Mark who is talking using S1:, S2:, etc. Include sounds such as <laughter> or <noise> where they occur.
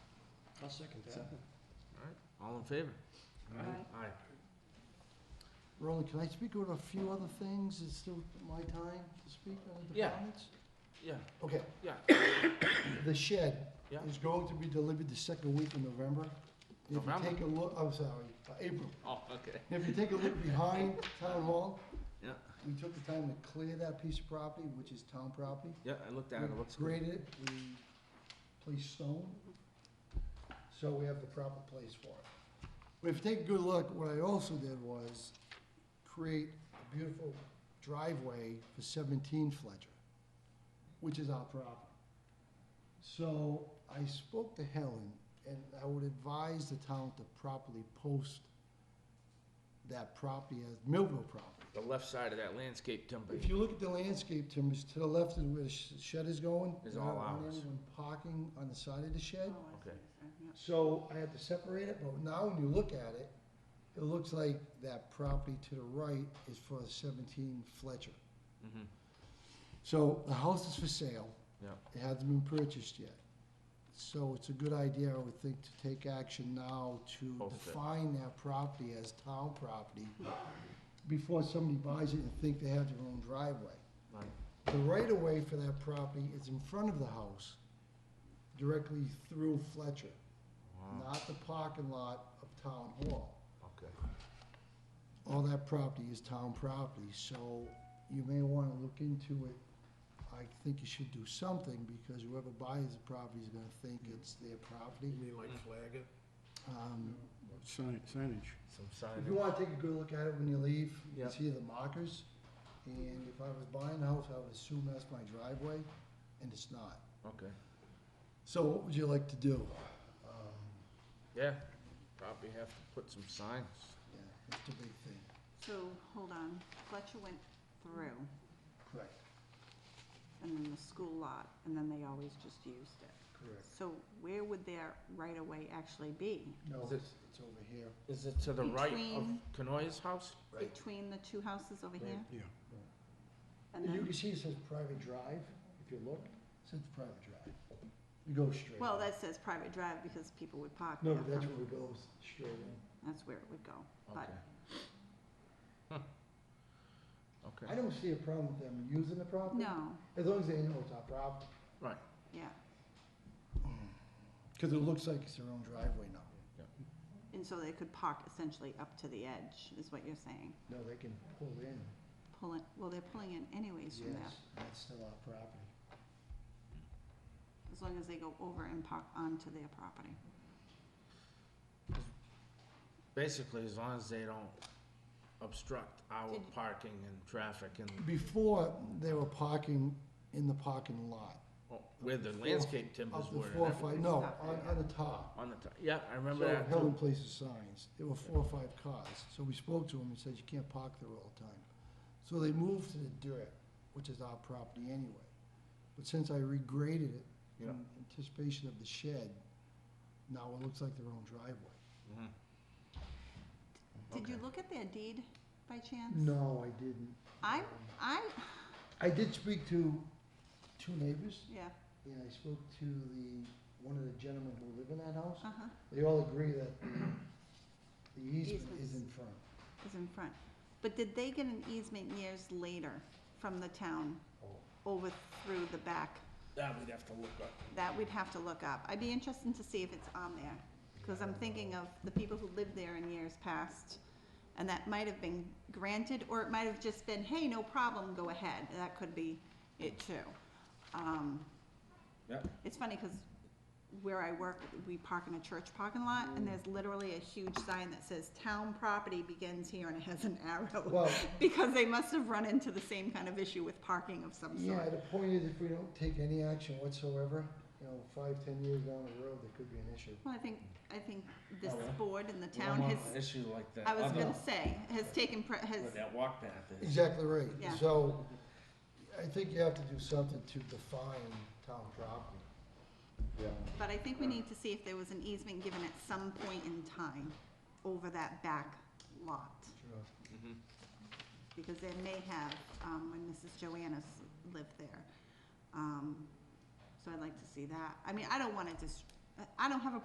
S1: I'll second that.
S2: All in favor?
S1: Aye.
S2: Aye.
S3: Roland, can I speak on a few other things? It's still my time to speak on the
S2: Yeah.
S3: comments?
S2: Yeah,
S3: Okay.
S2: Yeah. <coughs>
S3: The shed
S2: Yeah.
S3: is going to be delivered the second week in November. If you
S2: November?
S3: take a look, I'm sorry, uh, April.
S2: oh, okay.
S3: If you take a look behind
S2: <laughs>
S3: Town Hall.
S2: Yeah.
S3: We took the time to clear that piece of property, which is town property.
S2: Yeah, I looked at it, it looks
S3: We
S2: good.
S3: graded it, we placed stone, so we have the proper place for it. But if you take a good look, what I also did was create a beautiful driveway for seventeen Fletcher, which is our property. So I spoke to Helen, and I would advise the town to properly post that property as Millville property.
S2: The left side of that landscape timber.
S3: If you look at the landscape, Tim, it's to the left of where the sh- shed is going.
S2: Is
S3: and I
S2: all
S3: don't want
S2: ours.
S3: anyone Parking on the side of the shed,
S2: Okay.
S3: so I had to separate it, but now when you look at it, it looks like that property to the right is for seventeen Fletcher.
S2: Mhm.
S3: So the house is for sale.
S2: Yeah.
S3: It hasn't been purchased yet. So it's a good idea, I would think, to take action now to
S2: Post it.
S3: define that property as town property before somebody buys it and think they have their own driveway.
S2: Right.
S3: The right of way for that property is in front of the house, directly through Fletcher,
S2: Wow,
S3: not the parking lot of Town Hall.
S2: Okay.
S3: All that property is town property, so you may wanna look into it. I think you should do something, because whoever buys the property is gonna think it's their property.
S1: You mean like flag it?
S3: Um,
S1: Mm. Sign, signage.
S2: Some
S3: If you
S2: signage.
S3: wanna take a good look at it when you leave, you
S2: Yeah.
S3: can see the markers. And if I was buying the house, I would assume that's my driveway, and it's not.
S2: Okay.
S3: So what would you like to do? Um,
S2: Yeah, probably have to put some signs.
S3: Yeah, that's the big thing.
S4: So, hold on, Fletcher went through,
S3: Correct,
S4: and then the school lot, and then they always just used it.
S3: correct.
S4: So where would their right-of-way actually be?
S3: No,
S2: Is it-
S3: it's it's over here.
S2: Is it to the right of
S4: Between-
S2: Canoia's house?
S3: Right.
S4: Between the two houses over here?
S1: Yeah.
S4: And
S3: You
S4: then,
S3: can see it says private drive, if you look, it says private drive. You go straight.
S4: well,
S3: in.
S4: that says private drive because people would park
S3: No,
S4: there.
S3: but that's
S4: from-
S3: where it goes, straight in.
S4: That's where it would go. But
S2: Okay. Huh.
S3: I
S2: Okay,
S3: don't see a problem with them using the property.
S4: No,
S3: As long as they know it's our property.
S2: right.
S4: yeah,
S3: Because it looks like it's their own driveway now.
S4: and so they could park essentially up to the edge, is what you're saying.
S3: No, they can pull in.
S4: Pull it, well, they're pulling in anyways from there,
S3: Yes, that's still our property.
S4: as long as they go over and park onto their property.
S2: Basically, as long as they don't obstruct our
S4: Did-
S2: parking and traffic and
S3: Before, they were parking in the parking lot.
S2: oh, where the
S3: Four-
S2: landscape timbers
S3: Of the
S2: were. and
S3: four, or
S2: everything.
S3: five, no, on, on the top.
S2: On the, top. yeah, I remember
S3: So
S2: that. too.
S3: Helen places signs, there were four or five cars, so we spoke to him and said, you can't park there all the time. So they moved to the dirt, which is our property anyway. But since I regraded it in
S2: Yeah.
S3: anticipation of the shed, now it looks like their own driveway.
S2: Mhm.
S4: Did you
S2: Okay.
S4: look at their deed by chance?
S3: No, I didn't.
S4: I, I,
S3: I did speak to two neighbors,
S4: yeah,
S3: and I spoke to the, one of the gentlemen who live in that house.
S4: uh-huh,
S3: They all agree that the- the easement
S4: Easements.
S3: is in front.
S4: is in front. But did they get an easement years later from the town over through the back?
S2: That we'd have to look up.
S4: That we'd have to look up. I'd be interested to see if it's on there, because I'm thinking of the people who lived there in years past, and that might have been granted, or it might have just been, hey, no problem, go ahead. That could be it too. Um,
S2: Yep.
S4: It's funny because where I work, we park in a church parking lot, and there's literally a huge sign that says "Town property begins here," and it has an arrow.
S3: Well,
S4: <laughs> Because they must have run into the same kind of issue with parking of some
S3: Yeah,
S4: sort.
S3: the point is if we don't take any action whatsoever, you know, five, ten years down the road, there could be an issue.
S4: Well, I think, I think this
S2: Oh, yeah.
S4: board and the
S2: We don't
S4: town has,
S2: want an Issue like that.
S4: I was
S2: other-
S4: gonna say, has taken, pre- has,
S2: Where that walk path is.
S3: Exactly right.
S4: Yeah.
S3: So I think you have to do something to define town property. Yeah.
S4: but I think we need to see if there was an easement given at some point in time over that back lot.
S2: Mhm.
S4: because they may have, um, when Mrs. Joanna's lived there. Um, so I'd like to see that. I mean, I don't wanna just, I don't have a